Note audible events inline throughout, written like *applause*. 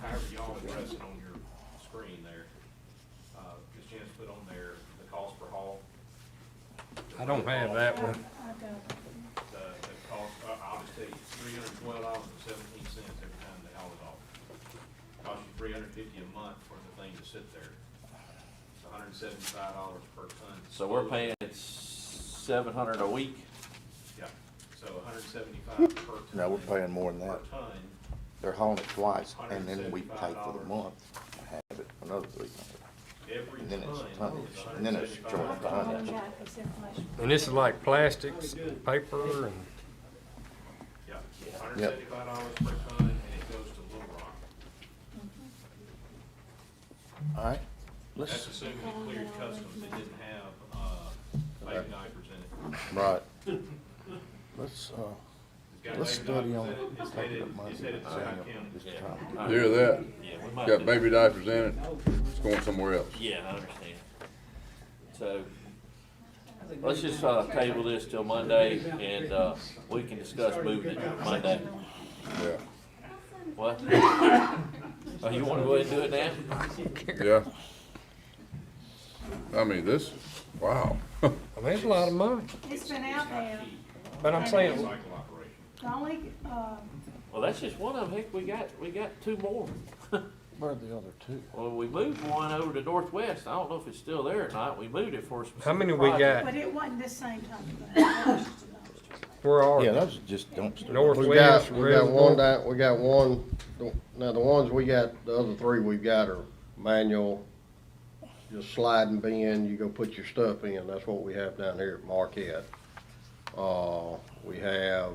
however y'all address it on your screen there, uh, Ms. Janice put on there the cost per haul. I don't have that one. I've got it. The, the cost, uh, I'll just tell you, three hundred and twelve dollars and seventeen cents every time they haul it off. Costs you three hundred and fifty a month for the thing to sit there. It's hundred and seventy-five dollars per ton. So we're paying seven hundred a week? Yeah, so hundred and seventy-five per ton. No, we're paying more than Per that. ton, They're hauling it twice, and then we pay for the month, and have it another three hundred. every And ton is $175. then it's tonnage, and then it's I've joint got all tonnage. that, this information. And this is like plastics, paper, and Yeah, hundred and seventy-five dollars per ton, and it goes to Little Rock. All right, That's let's, assuming it cleared customs, it didn't have, uh, baby diapers in it. right. Let's, uh, It's got let's baby study on diapers in it, It's take it headed, at money. it's headed to Scott Just County. try to All You hear right. that? Yeah, we might Got do- baby diapers in it, it's going somewhere else. Yeah, I understand. So, let's just, uh, table this till Monday and, uh, we can discuss moving it Monday. Yeah, What? Oh, you wanna go ahead and do it now? yeah. I mean, this, wow. *laughs* I mean, it's a lot of money. It's been out there. But I'm saying, Cycle operation. The only, uh, Well, that's just one of them. Heck, we got, we got two more. get- Where are the other two? Well, we moved one over to Northwest. I don't know if it's still there or not. We moved it for a specific how many we project. got? but it wasn't this same time. Where Yeah, are those are just dumpsters. We got, Northwest, we got Reservoir? one that, we got one, the- now the ones we got, the other three we've got are manual, just sliding bin, you go put your stuff in, that's what we have down here at Marquette. Uh, we have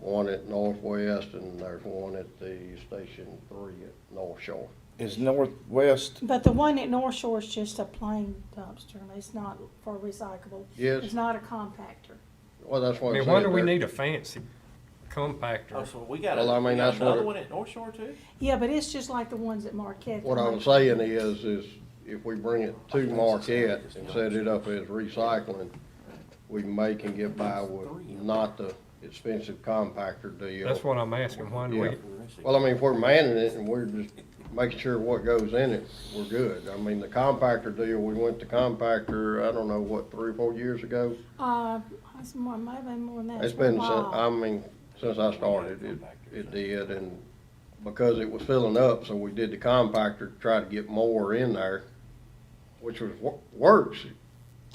one at Northwest and there's one at the Station Three at North Shore. Is Northwest, But the one at North Shore is just a plain dumpster, and it's not for recyclable. Yes. It's not a compactor. Well, that's I what I'm mean, saying. why do we there- need a fancy Oh, compactor? so we got, Well, I a- we mean, got that's what another it- one at North Shore too? Yeah, but it's just like the ones at Marquette. What I was saying is, is if we bring it to Marquette and set it up as recycling, we may can get by with not the expensive compactor deal. That's what I'm asking, why do we, Yeah. Well, I mean, if we're manning it and we're just making sure what goes in it, we're good. I mean, the compactor deal, we went to compactor, I don't know, what, three or four years ago? Uh, it's more, might have been more than that. It's been, since- Wow. I mean, since I started, it, it did, and because it was filling up, so we did the compactor to try to get more in there, which was, wo- works,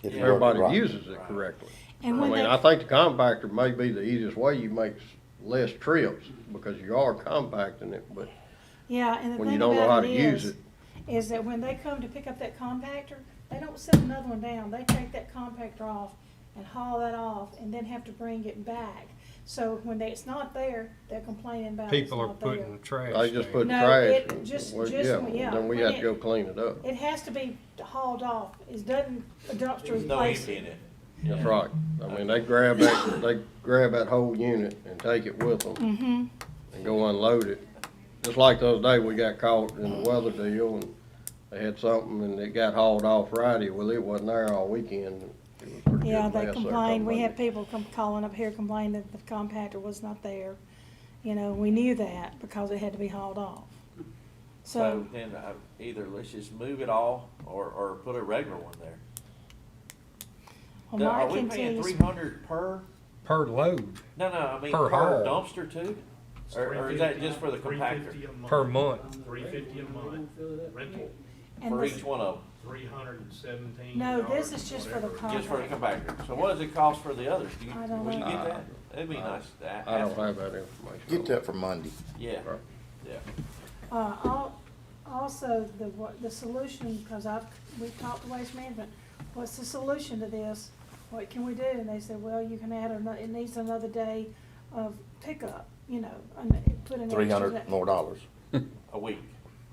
if if you're everybody right. uses it correctly. I And when mean, they, I think the compactor may be the easiest way, you make s- less trips, because you are compacting it, but yeah, and the when you thing don't know how about to it use is, it, is that when they come to pick up that compactor, they don't set another one down. They take that compactor off and haul that off and then have to bring it back. So when they, it's not there, they're complaining about it's people are not there. putting trash I just there? put No, trash, it and just- we- just- yeah, yeah, then we when have it- to go clean it up. It has to be hauled off. It doesn't, a dumpster There's no replace empty in it. it. That's right. I mean, they grab that, they grab that whole unit and take it with them. Mm-hmm. And go unload it. Just like the other day, we got caught in the weather deal and they had something and it got hauled off Friday. Well, it wasn't there all weekend. It was a pretty Yeah, good mess they there come complained, we had Monday. people come calling up here complaining that the compactor was not there. You know, we knew that because it had to be hauled off. So So, then uh, either let's just move it all or, or put a regular one there. well, Now, Are Mark we can tell paying you, three hundred per? Per load, No, no, I mean Per per haul. dumpster too? Or, or is that just for the compactor? per month. Three fifty a month, rental, and For this- each one of them, three hundred and seventeen no, dollars. this is just for the just for the compactor. compactor. So what does it cost for the others? Do you, Oh, I don't will you know. get that? That'd be nice. to a- I don't ask- have that information. Get that for Monday. Yeah, yeah. Uh, al- also, the, wa- the solution, because I've, we've talked to Waste Management, what's the solution to this? What can we do? And they said, well, you can add another, it needs another day of pickup, you know, and put an extra. Three hundred day- more dollars. A week,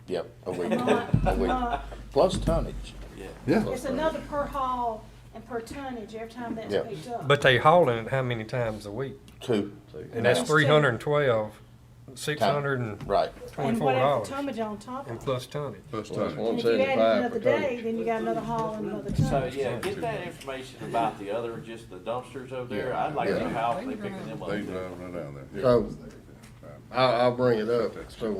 Yep, a week, Month, a week. month. Plus tonnage. yeah. Yeah. It's another per haul and per tonnage every time that's Yeah. picked up. But they hauling it how many times a week? Two, And that's Times two. three hundred and twelve, six hundred and right. And twenty-four whatever dollars, tonnage on top and of it. plus tonnage. First Well, that's time. And one if you add it seventy-five another per day, ton. then you got another haul and another So, tonnage. yeah, get that information about the other, just the dumpsters over there. I'd like to know how they picking them up. They too. driving it down there. So, I, I'll bring it up, so